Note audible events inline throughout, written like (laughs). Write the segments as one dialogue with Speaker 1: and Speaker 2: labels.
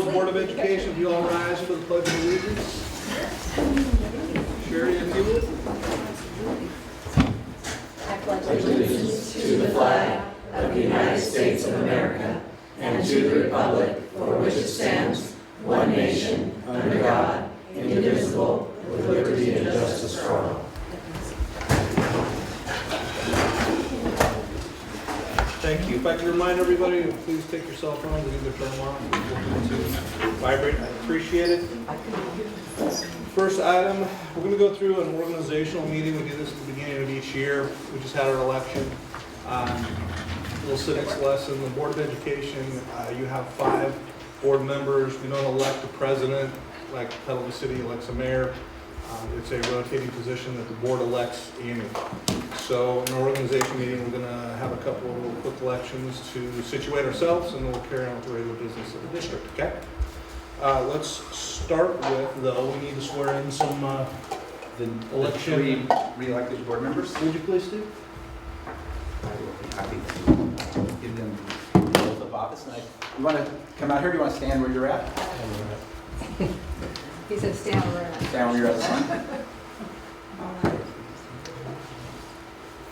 Speaker 1: Education, if you all rise for the pledge of allegiance. Sherry, if you would. Thank you. If I could remind everybody, to please take your cell phones and either turn them off or to vibrate. I appreciate it. First item, we're going to go through an organizational meeting. We do this at the beginning of each year. We just had our election. Um, Little civics lesson, the Board of Education, uh, you have five board members. We don't elect a president like Petaluma City elects a mayor. Um, It's a rotating position that the board elects annually. So in our organization meeting, we're gonna have a couple of little quick elections to situate ourselves, and then we'll carry on with the regular business of the district, okay? Uh, let's start with, though, we need to swear in some, uh,
Speaker 2: The the
Speaker 1: Election.
Speaker 2: three re-elected board members,
Speaker 1: would you please do?
Speaker 2: I will be happy to give them the oath of office. And I, you want to come out here, do you want to stand where you're at?
Speaker 3: He said, stand over there."
Speaker 2: Stand where you're at, son.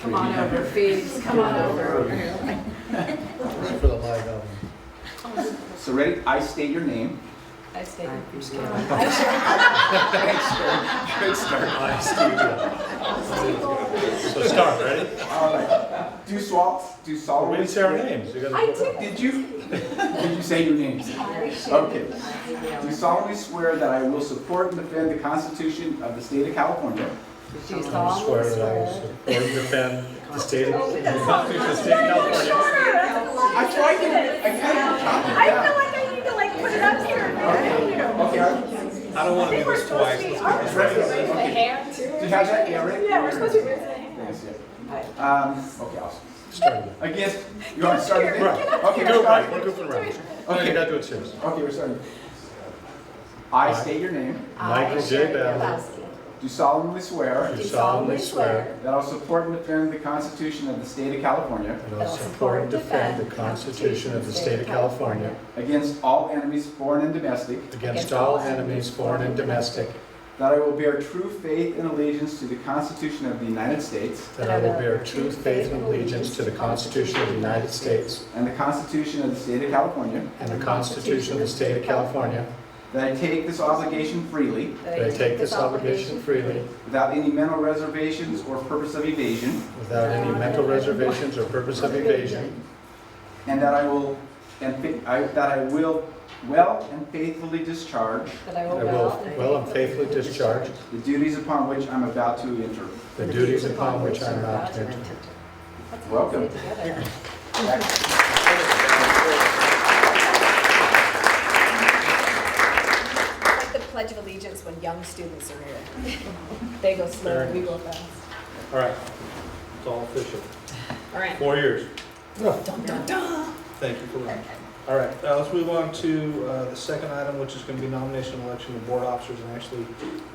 Speaker 3: Come on over, Phoebes, come on over.
Speaker 2: So ready, I state your name.
Speaker 3: I stayed.
Speaker 2: Good start.
Speaker 4: So start, ready?
Speaker 2: All right. Do swap, do
Speaker 4: We
Speaker 2: solemnly.
Speaker 4: didn't say our names. You gotta-
Speaker 3: I did.
Speaker 2: Did you, (laughs) did you say your names?
Speaker 4: Oh.
Speaker 2: Okay. Do solemnly swear that I will support and defend the Constitution of the state of California
Speaker 3: Do you
Speaker 4: I
Speaker 3: solemnly
Speaker 4: swear that I will
Speaker 3: swear?
Speaker 4: support and defend the state of the Constitution of the state of California.
Speaker 2: I tried to, I tried to chop it
Speaker 5: I
Speaker 2: down.
Speaker 5: feel like I need to like put it up here.
Speaker 2: Okay, I-
Speaker 1: I don't wanna do this twice. Let's get this right.
Speaker 5: The hair too.
Speaker 2: do you have that? Yeah, right?
Speaker 5: Yeah, we're supposed to raise the hand.
Speaker 2: Yes, yeah. Um, okay, awesome.
Speaker 4: Start again.
Speaker 2: Again, you want to start again?
Speaker 4: Right.
Speaker 2: Okay,
Speaker 4: Go
Speaker 2: we're
Speaker 4: right,
Speaker 2: starting.
Speaker 4: we're goofing around. No, you gotta do it serious.
Speaker 2: Okay, we're starting. I state your name,
Speaker 4: Michael J. Babbitt,
Speaker 2: do solemnly swear
Speaker 4: do solemnly swear
Speaker 2: that I'll support and defend the Constitution of the State of California
Speaker 4: that I will support and defend the Constitution of the state of California
Speaker 2: against all enemies, foreign and domestic,
Speaker 4: against all enemies, foreign and domestic,
Speaker 2: that I will bear true faith and allegiance to the Constitution of the United States
Speaker 4: that I will bear true faith and allegiance to the Constitution of the United States
Speaker 2: and the Constitution of the State of California,
Speaker 4: and the Constitution of the state of California,
Speaker 2: that I take this obligation freely
Speaker 4: that I take this obligation freely
Speaker 2: without any mental reservations or purpose of evasion,
Speaker 4: without any mental reservations or purpose of evasion,
Speaker 2: and that I will, and fa- I- that I will well and faithfully discharge
Speaker 3: That I
Speaker 4: I will well and faithfully discharge
Speaker 2: The duties upon which I'm about to enter.
Speaker 4: the duties upon which I am about to enter.
Speaker 2: Welcome.
Speaker 4: (laughs)
Speaker 5: Like the Pledge of Allegiance when young students are here. They go slow, we go fast.
Speaker 1: All right, it's all official.
Speaker 5: All right.
Speaker 1: Four years.
Speaker 5: Dun, dun, dun.
Speaker 1: Thank you for listening. All right, uh, let's move on to uh, the second item, which is going to be nomination and election of board officers. And actually,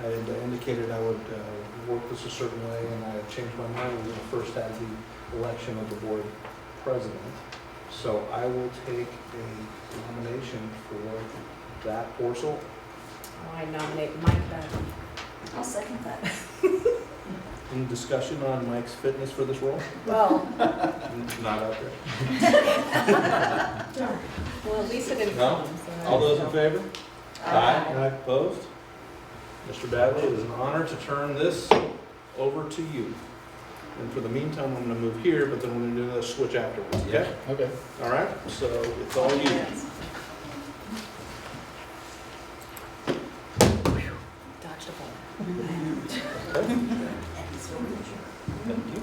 Speaker 1: I had indicated I would uh, work this a certain way, and I changed my mind. We're going to first have the election of the board president. So I will take a nomination for that parcel.
Speaker 3: Oh, I nominate Mike Babbitt.
Speaker 5: I'll second that.
Speaker 1: Any discussion on Mike's fitness for this role?
Speaker 3: Well,
Speaker 1: Not out there.
Speaker 3: well, at least it didn't
Speaker 1: No?
Speaker 3: come. so I-
Speaker 1: All those in favor?
Speaker 3: Aye.
Speaker 1: Aye. Opposed? Mr. Bagley, it is an honor to turn this over to you. And for the meantime, I'm gonna move here, but then we're gonna do the switch afterwards, okay?
Speaker 4: Okay.
Speaker 1: All right, so it's all you.
Speaker 3: Dodged a bullet.
Speaker 1: Thank you.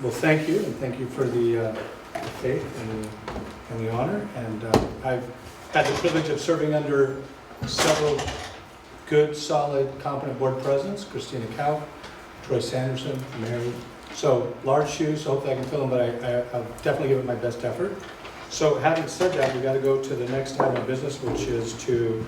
Speaker 6: Well, thank you, and thank you for the uh, faith and and the honor. And uh, I've had the privilege of serving under several good, solid, competent board presidents, Christina Cow, Troy Sanderson, Mary. So large shoes, hope that I can fill them, but I- I- I'll definitely give it my best effort. So having said that, we got to go to the next item of business, which is to